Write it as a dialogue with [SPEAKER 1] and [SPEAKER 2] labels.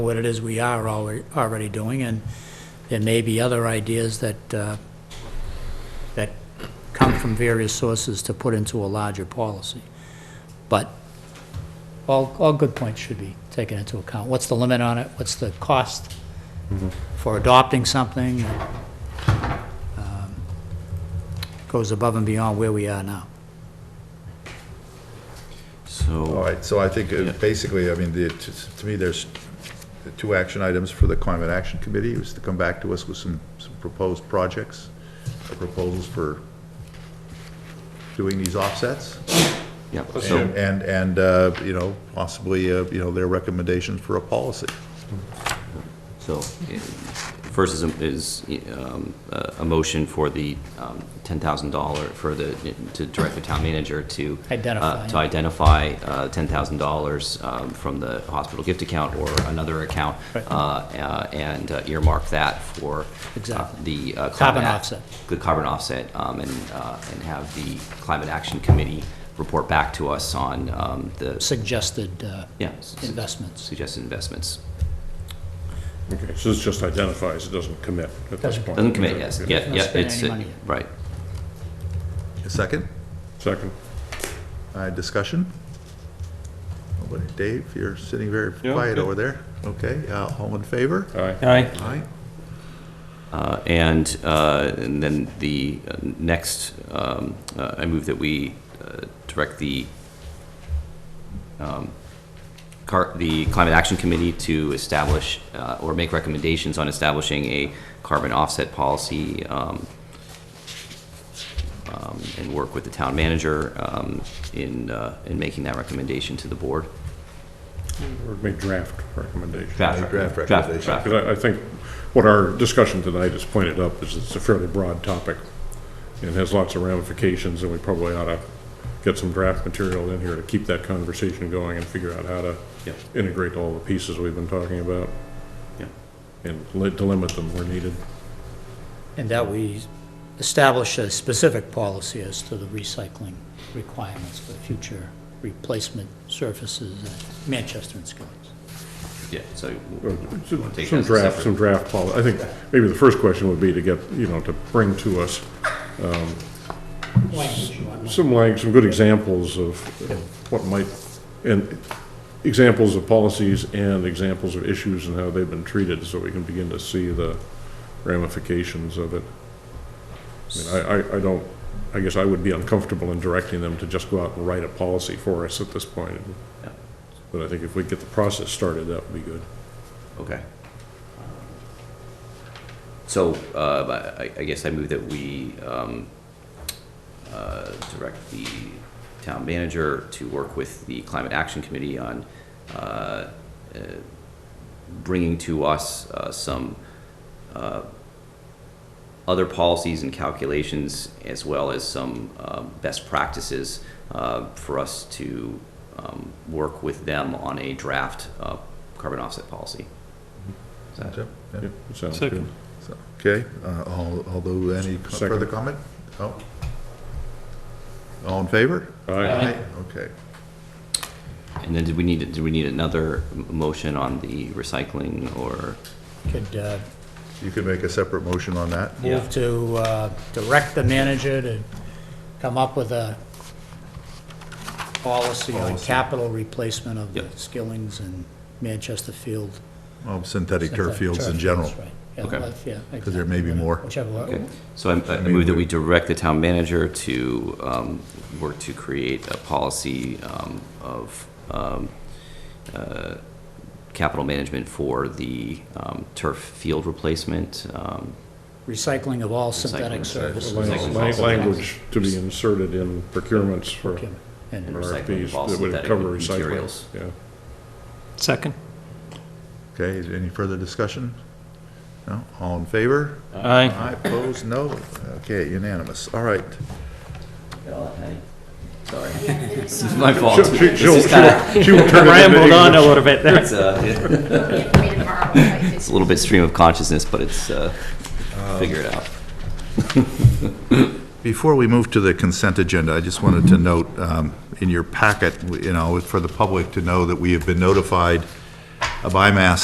[SPEAKER 1] what it is we are alre- already doing, and there may be other ideas that, uh, that come from various sources to put into a larger policy. But all, all good points should be taken into account. What's the limit on it? What's the cost for adopting something that um, goes above and beyond where we are now?
[SPEAKER 2] So,
[SPEAKER 3] All right, so I think, uh,
[SPEAKER 2] Yeah.
[SPEAKER 3] basically, I mean, the, to to me, there's the two action items for the Climate Action Committee, is to come back to us with some, some proposed projects, or proposals for doing these offsets,
[SPEAKER 2] yeah, so,
[SPEAKER 3] and, and, and, uh, you know, possibly, uh, you know, their recommendations for a policy.
[SPEAKER 2] so, eh, first is, a- is um, a a motion for the um, $10,000 for the, to direct the town manager to. uh,
[SPEAKER 1] Identify.
[SPEAKER 2] To identify uh, $10,000 um, from the hospital gift account or another account.
[SPEAKER 1] Right.
[SPEAKER 2] uh, uh, And uh, earmark that for. uh,
[SPEAKER 1] Exactly.
[SPEAKER 2] The. uh,
[SPEAKER 1] Carbon
[SPEAKER 2] climate ac-
[SPEAKER 1] offset.
[SPEAKER 2] The carbon offset, um, and, uh, and have the Climate Action Committee report back to us on um, the,
[SPEAKER 1] Suggested uh,
[SPEAKER 2] yeah. s- s-
[SPEAKER 1] investments.
[SPEAKER 2] Suggested investments.
[SPEAKER 4] Okay, so this just identifies, it doesn't commit at this
[SPEAKER 1] Doesn't-
[SPEAKER 4] point?
[SPEAKER 2] Doesn't commit, yes, yeah,
[SPEAKER 1] Not
[SPEAKER 2] yeah,
[SPEAKER 1] spend
[SPEAKER 2] it's,
[SPEAKER 1] any money yet.
[SPEAKER 2] right.
[SPEAKER 3] A second,
[SPEAKER 4] Second.
[SPEAKER 3] uh, discussion? Nobody, Dave, you're sitting very
[SPEAKER 4] Yeah,
[SPEAKER 3] quiet
[SPEAKER 4] yeah.
[SPEAKER 3] over there, okay, uh, all in favor?
[SPEAKER 4] All right.
[SPEAKER 5] Aye.
[SPEAKER 3] Aye.
[SPEAKER 2] Uh, And, uh, and then the uh, next, um, uh, I move that we uh, direct the, um, car, the Climate Action Committee to establish, uh, or make recommendations on establishing a carbon offset policy, um, um, and work with the town manager, um, in, uh, in making that recommendation to the board.
[SPEAKER 4] Or make draft recommendation.
[SPEAKER 3] Draft recommendation.
[SPEAKER 2] draft.
[SPEAKER 4] Because I, I think what our discussion tonight has pointed up is it's a fairly broad topic and has lots of ramifications, and we probably ought to get some draft material in here to keep that conversation going and figure out how to
[SPEAKER 2] Yep.
[SPEAKER 4] integrate all the pieces we've been talking about
[SPEAKER 2] Yeah.
[SPEAKER 4] and li- delimit them where needed.
[SPEAKER 1] And that we establish a specific policy as to the recycling requirements for future replacement surfaces at Manchester and Skillings.
[SPEAKER 2] Yeah, so. take that
[SPEAKER 4] Some
[SPEAKER 2] as a
[SPEAKER 4] draft,
[SPEAKER 2] separate-
[SPEAKER 4] some draft policy. I think maybe the first question would be to get, you know, to bring to us some like, some good examples of of what might, and examples of policies and examples of issues and how they've been treated, so we can begin to see the ramifications of it. I mean, I, I, I don't, I guess I would be uncomfortable in directing them to just go out and write a policy for us at this point.
[SPEAKER 2] Yeah.
[SPEAKER 4] But I think if we get the process started, that would be good.
[SPEAKER 2] Okay. So, uh, I, I guess I move that we, um, uh, direct the town manager to work with the Climate Action Committee on, uh, uh, bringing to us, uh, some, uh, other policies and calculations as well as some, um, best practices, uh, for us to, um, work with them on a draft, uh, carbon offset policy. Is that-
[SPEAKER 3] Yep, yep.
[SPEAKER 4] Yeah, it sounds
[SPEAKER 5] Second.
[SPEAKER 4] good.
[SPEAKER 3] So, Okay, uh, all- although, any co-
[SPEAKER 4] Second.
[SPEAKER 3] further comment? Oh. All in favor?
[SPEAKER 4] All right,
[SPEAKER 3] Okay.
[SPEAKER 2] And then did we need, do we need another m- motion on the recycling or?
[SPEAKER 1] Could uh,
[SPEAKER 3] You can make a separate motion on that.
[SPEAKER 2] Yeah.
[SPEAKER 1] move to uh, direct the manager to come up with a policy on
[SPEAKER 3] Policy.
[SPEAKER 1] capital replacement of the
[SPEAKER 2] Yep.
[SPEAKER 1] Skillings and Manchester Field.
[SPEAKER 3] Of synthetic turf fields in general,
[SPEAKER 1] Right, yeah,
[SPEAKER 2] Okay.
[SPEAKER 1] well, yeah,
[SPEAKER 3] because there may be more.
[SPEAKER 1] Whichever,
[SPEAKER 2] Okay,
[SPEAKER 1] one.
[SPEAKER 2] so I I move that we direct the town manager to um, work to create a policy um, of um, uh, capital management for the um, turf field replacement. um,
[SPEAKER 1] recycling of all synthetic
[SPEAKER 2] Recycling.
[SPEAKER 1] surfaces.
[SPEAKER 2] Recycling.
[SPEAKER 4] Lang- language to be inserted in procurements for
[SPEAKER 1] And
[SPEAKER 2] recycling of all
[SPEAKER 4] RFPs that would
[SPEAKER 2] synthetic
[SPEAKER 4] cover recycling.
[SPEAKER 2] materials.
[SPEAKER 4] Yeah.
[SPEAKER 5] Second.
[SPEAKER 3] Okay, is any further discussion? No, all in favor?
[SPEAKER 5] Aye.
[SPEAKER 3] Aye, opposed, no? Okay, unanimous, all right.
[SPEAKER 2] Sorry, this is my fault.
[SPEAKER 4] She'll- she'll-
[SPEAKER 2] This is kinda-
[SPEAKER 4] she'll turn it into
[SPEAKER 5] Rambled on a
[SPEAKER 4] English.
[SPEAKER 5] little bit there.
[SPEAKER 2] it's, uh, It's
[SPEAKER 6] It's
[SPEAKER 2] a little bit stream of consciousness, but it's, uh, figure it out.
[SPEAKER 3] Before we move to the consent agenda, I just wanted to note, um, in your packet, you know, for the public to know that we have been notified by Mass